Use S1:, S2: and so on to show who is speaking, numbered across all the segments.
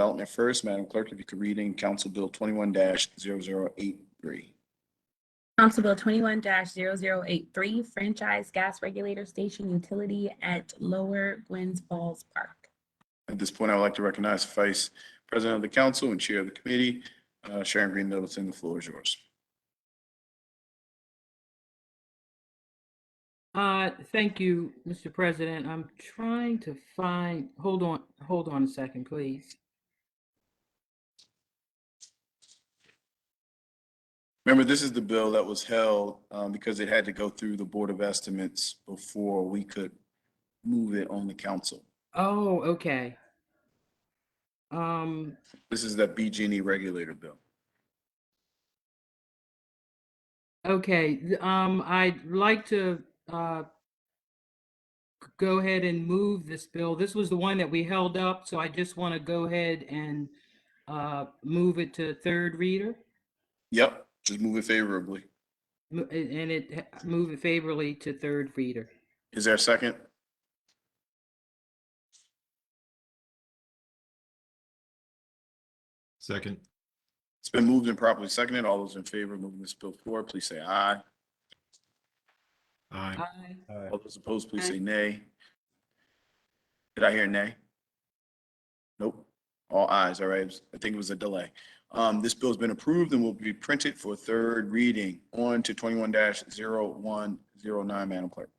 S1: Development first, Madam Clerk, if you could read in Council Bill twenty-one 83
S2: Council Bill twenty-one 83 franchise gas regulator station utility at Lower Gwynns Falls Park.
S1: At this point, I would like to recognize Vice President of the Council and Chair of the Committee, uh, Sharon Green Middleton. The floor is yours.
S3: Uh, thank you, Mr. President. I'm trying to find, hold on, hold on a second, please.
S1: Remember, this is the bill that was held um, because it had to go through the Board of Estimates before we could move it on the council.
S3: Oh, okay. Um,
S1: This is that BG&E E regulator bill.
S3: okay, th- um, I'd like to, uh, g- go ahead and move this bill. This was the one that we held up, so I just want to go ahead and, uh, move it to third reader.
S1: Yep, just move it favorably.
S3: Mo- a- And it, move it favorably to third reader.
S1: Is there a second?
S4: Second,
S1: It's been moved and properly seconded. All those in favor of moving this bill forward, please say aye.
S4: aye.
S3: Aye.
S1: All those opposed, please
S3: Aye.
S1: say nay. Did I hear nay? Nope. All ayes, all right. I think it was a delay. Um, this bill's been approved and will be printed for third reading. On to twenty-one 109 Madam Clerk.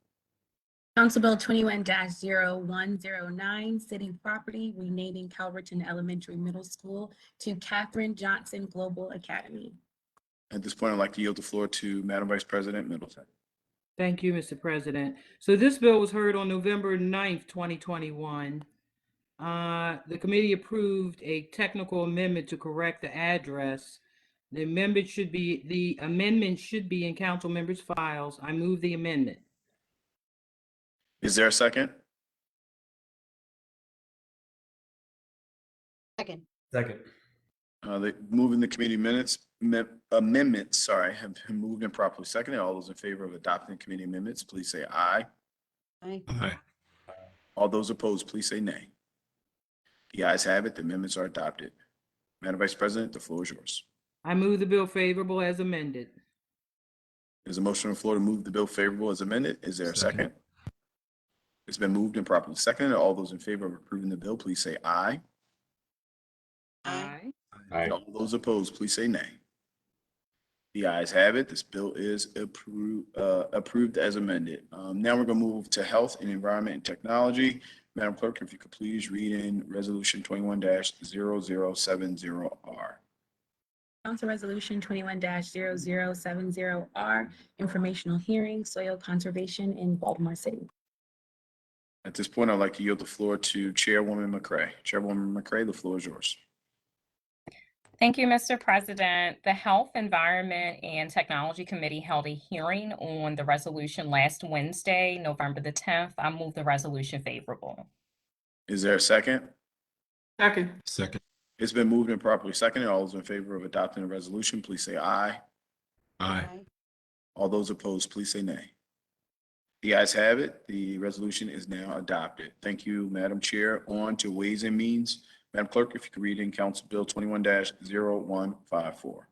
S2: Council Bill twenty-one 109 city property renaming Calverton Elementary Middle School to Catherine Johnson Global Academy.
S1: At this point, I'd like to yield the floor to Madam Vice President Middleton.
S3: Thank you, Mr. President. So this bill was heard on November 9th, 2021. Uh, The committee approved a technical amendment to correct the address. The amendment should be, the amendment should be in council members' files. I move the amendment.
S1: Is there a second?
S5: Second.
S6: Second.
S1: Uh, the, moving the committee minutes, me- amendments, sorry, have been moved and properly seconded. All those in favor of adopting committee amendments, please say aye.
S5: Aye.
S4: Aye.
S1: All those opposed, please say nay. The ayes have it, the amendments are adopted. Madam Vice President, the floor is yours.
S3: I move the bill favorable as amended.
S1: There's a motion on the floor to move the bill favorable as amended. Is there a
S4: Second.
S1: second? It's been moved and properly seconded. All those in favor of approving the bill, please say aye.
S5: Aye.
S6: Aye.
S1: All those opposed, please say nay. The ayes have it. This bill is approved, uh, approved as amended. Um, now we're gonna move to health and environment and technology. Madam Clerk, if you could please read in resolution twenty-one 70 R.
S2: Council Resolution twenty-one 70 R, informational hearing, soil conservation in Baltimore City.
S1: At this point, I'd like to yield the floor to Chairwoman McCray. Chairwoman McCray, the floor is yours.
S7: Thank you, Mr. President. The Health, Environment, and Technology Committee held a hearing on the resolution last Wednesday, November the 10th. I move the resolution favorable.
S1: Is there a second?
S3: Second.
S4: Second,
S1: It's been moved and properly seconded. All those in favor of adopting the resolution, please say aye.
S4: aye.
S1: All those opposed, please say nay. The ayes have it. The resolution is now adopted. Thank you, Madam Chair. On to Ways and Means. Madam Clerk, if you could read in Council Bill twenty-one 154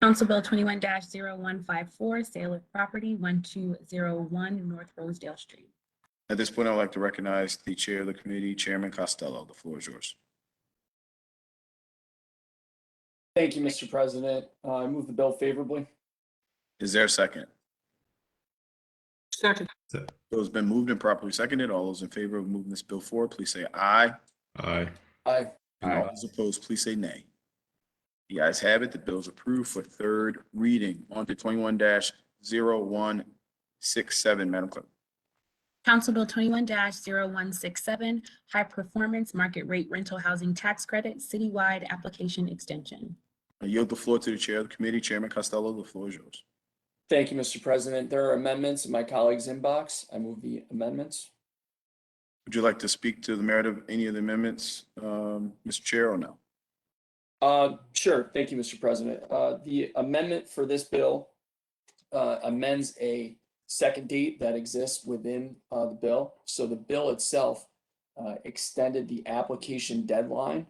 S2: Council Bill twenty-one 154 sale of property, one-two-zero-one North Rosedale Street.
S1: At this point, I'd like to recognize the Chair of the Committee, Chairman Costello. The floor is yours.
S8: Thank you, Mr. President. Uh, I move the bill favorably.
S1: Is there a second?
S3: Second.
S4: Se-
S1: Bill has been moved and properly seconded. All those in favor of moving this bill forward, please say aye.
S4: Aye.
S8: Aye.
S1: And all those opposed, please say nay. The ayes have it. The bill is approved for third reading. On to twenty-one 167 Madam Clerk.
S2: Council Bill twenty-one 167 high performance market rate rental housing tax credit citywide application extension.
S1: I yield the floor to the Chair of the Committee, Chairman Costello. The floor is yours.
S8: Thank you, Mr. President. There are amendments in my colleague's inbox. I move the amendments.
S1: Would you like to speak to the merit of any of the amendments, um, Mr. Chair, or no?
S8: Uh, Sure. Thank you, Mr. President. Uh, The amendment for this bill uh, amends a second date that exists within uh, the bill. So the bill itself uh, extended the application deadline